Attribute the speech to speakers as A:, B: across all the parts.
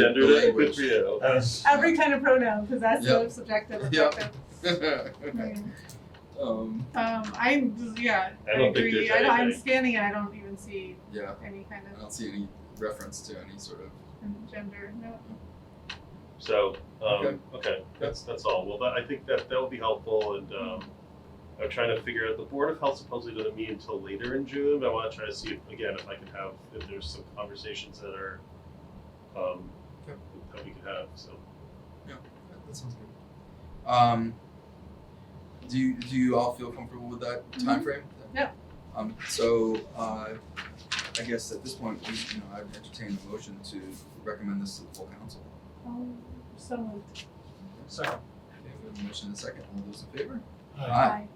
A: Gendered it, good for you.
B: Every kind of pronoun, because that's so subjective.
C: Yeah.
B: objective. Um,
C: um,
B: I'm, just- yeah,
A: I
B: I
A: don't think
B: agree.
A: there's
B: I don't, I'm
A: anything.
B: scanning and I don't even see
C: yeah,
B: any kind
C: I
B: of
C: don't see any reference to any sort of.
B: gender, no.
A: So,
C: Okay.
A: um, okay, that's, that's all. Well, that, I think that, that'll be helpful and, um, I'm trying to figure out, the Board of Health supposedly doesn't meet until later in June, but I wanna try to see, if again, if I can have, if there's some conversations that are, um,
C: Okay.
A: that we could have, so.
C: That sounds good. Um, do you, do you all feel comfortable with that time frame?
B: Yeah.
C: Um, so uh, I guess at this point, we, you know, I'd entertain a motion to recommend this to the full council.
B: Um, so moved.
D: Second.
C: Okay, we have a motion and a second. All those in favor?
D: Aye.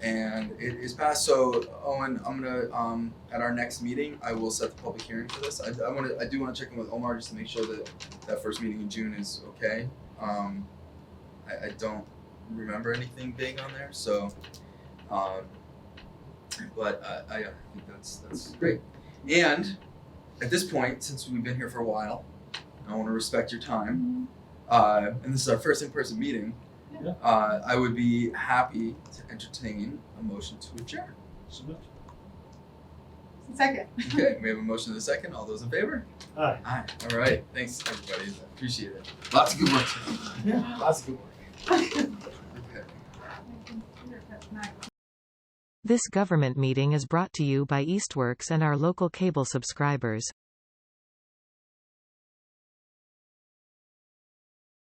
C: and it is passed. So Owen, I'm gonna um at our next meeting, I will set the public hearing for this. I, I want to I do want to check in with Omar just to make sure that that first meeting in June is okay. Um, I, I don't remember anything big on there, so um, but I, I I think that's that's great. And at this point, since we've been here for a while, I want to respect your time
B: Mhm.
C: uh, and this is our first in-person meeting,
B: Yeah.
C: uh, I would be happy to entertain a motion to adjourn.
D: So moved.
B: Second.
C: Okay, we have a motion and a second. All those in favor?
D: Aye.
C: Aye. All right. Thanks, everybody. I Appreciate it. Lots of good work.
D: That's good.
C: Okay.
E: This government meeting is brought to you by Eastworks and our local cable subscribers.